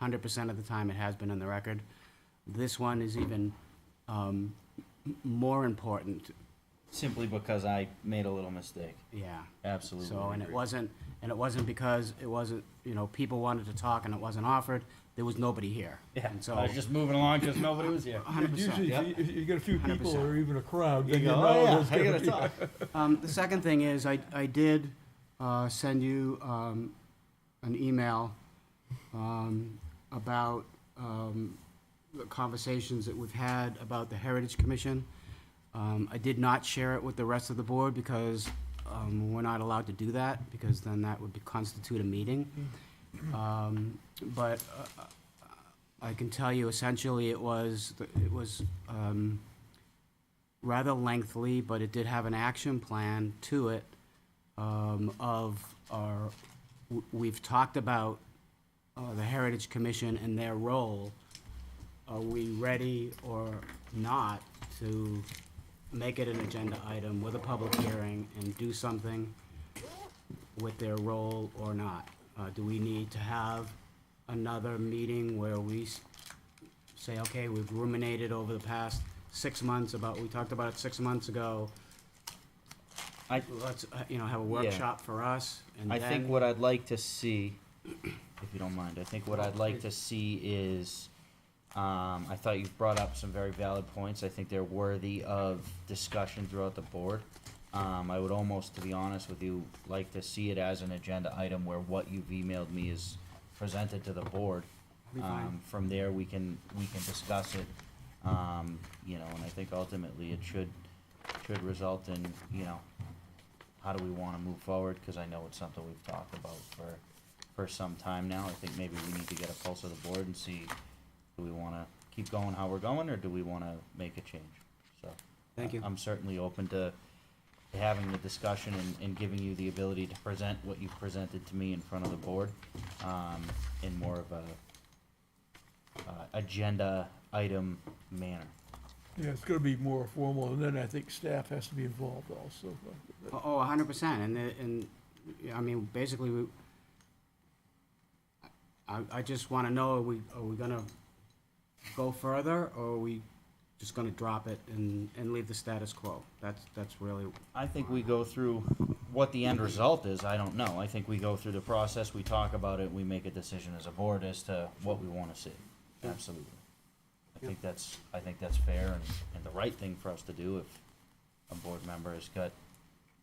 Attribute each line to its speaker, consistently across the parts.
Speaker 1: hundred percent of the time it has been in the record. This one is even um, m- more important,
Speaker 2: Simply because I made a little mistake.
Speaker 1: yeah.
Speaker 2: Absolutely.
Speaker 1: So, and it
Speaker 2: agree.
Speaker 1: wasn't, and it wasn't because it wasn't, you know, people wanted to talk and it wasn't offered, there was nobody here.
Speaker 2: Yeah,
Speaker 1: And so,
Speaker 2: I was just moving along because nobody was here.
Speaker 1: hundred percent,
Speaker 3: Usually,
Speaker 2: Yep.
Speaker 3: if you, if you get a few people
Speaker 1: 100%.
Speaker 3: or even a crowd,
Speaker 2: You
Speaker 3: then you
Speaker 2: go,
Speaker 3: know
Speaker 2: oh yeah,
Speaker 3: there's
Speaker 2: I
Speaker 3: gonna
Speaker 2: gotta
Speaker 3: be-
Speaker 2: talk.
Speaker 1: Um, the second thing is, I, I did, uh, send you, um, an email, um, about, um, the conversations that we've had about the Heritage Commission. Um, I did not share it with the rest of the board because, um, we're not allowed to do that, because then that would be- constitute a meeting. Um, but, uh, I can tell you essentially it was, it was, um, rather lengthy, but it did have an action plan to it um, of our, w- we've talked about uh, the Heritage Commission and their role. Are we ready or not to make it an agenda item with a public hearing and do something with their role or not? Uh, Do we need to have another meeting where we s- say, okay, we've ruminated over the past six months about, we talked about it six months ago.
Speaker 2: I-
Speaker 1: Let's, uh, you know, have a workshop for us and
Speaker 2: I
Speaker 1: then.
Speaker 2: think what I'd like to see, if you don't mind, I think what I'd like to see is, um, I thought you brought up some very valid points. I think they're worthy of discussion throughout the board. Um, I would almost, to be honest with you, like to see it as an agenda item where what you've emailed me is presented to the board.
Speaker 1: Be fine.
Speaker 2: Um, from there, we can, we can discuss it, um, you know, and I think ultimately it should, should result in, you know, how do we wanna move forward, cause I know it's something we've talked about for, for some time now, I think maybe we need to get a pulse of the board and see, do we wanna keep going how we're going, or do we wanna make a change, so.
Speaker 1: Thank you.
Speaker 2: I'm certainly open to to having the discussion and, and giving you the ability to present what you've presented to me in front of the board, um, in more of a, uh, agenda item manner.
Speaker 3: Yeah, it's gonna be more formal, and then I think staff has to be involved also.
Speaker 1: Oh, Oh, a hundred percent, and, the- and, yeah, I mean, basically, we, I, I just wanna know, are we, are we gonna go further, or are we just gonna drop it and, and leave the status quo? That's, that's really,
Speaker 2: I think we go through what the end result is, I don't know. I think we go through the process, we talk about it, we make a decision as a board as to what we wanna see. Absolutely. I think that's, I think that's fair and, and the right thing for us to do if a board member has got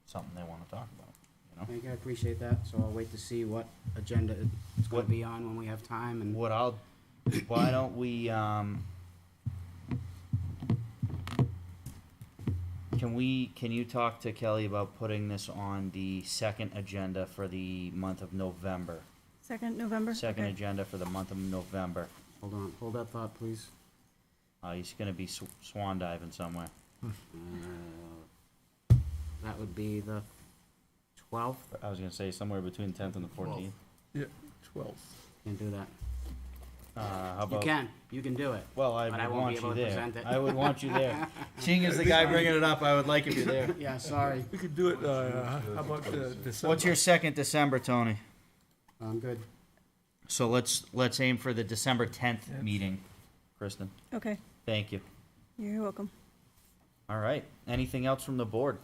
Speaker 2: something they wanna talk about, you know?
Speaker 1: I think I appreciate that, so I'll wait to see what agenda it's gonna
Speaker 2: What-
Speaker 1: be on when we have time, and,
Speaker 2: What I'll, why don't we, um, can we, can you talk to Kelly about putting this on the second agenda for the month of November?
Speaker 4: Second November?
Speaker 2: Second
Speaker 4: Okay.
Speaker 2: agenda for the month of November.
Speaker 1: hold on, hold that thought, please.
Speaker 2: Uh, he's gonna be sw- swan diving somewhere.
Speaker 1: Uh, That would be the twelfth,
Speaker 2: I was gonna say somewhere between tenth and the fourteenth.
Speaker 3: Twelve.
Speaker 1: can do that.
Speaker 2: Uh, how
Speaker 1: You
Speaker 2: about?
Speaker 1: can, you can do it.
Speaker 2: Well, I
Speaker 1: but I
Speaker 2: would
Speaker 1: won't be
Speaker 2: want
Speaker 1: able
Speaker 2: you
Speaker 1: to
Speaker 2: there.
Speaker 1: present it.
Speaker 2: I would want you there. Seeing as the guy bringing it up, I would like if you're there.
Speaker 1: Yeah, sorry.
Speaker 3: We could do it, uh, how about uh, December?
Speaker 2: What's your second December, Tony?
Speaker 1: I'm good.
Speaker 2: So let's, let's aim for the December tenth meeting, Kristen.
Speaker 4: Okay,
Speaker 2: Thank you.
Speaker 4: you're welcome.
Speaker 2: All right. Anything else from the board?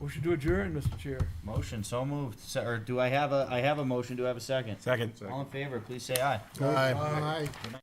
Speaker 3: We should do adjourn, Mr. Chair.
Speaker 2: Motion, so moved. Se- Or do I have a, I have a motion, do I have a second?
Speaker 5: Second.
Speaker 2: All in favor, please say aye.
Speaker 5: Aye.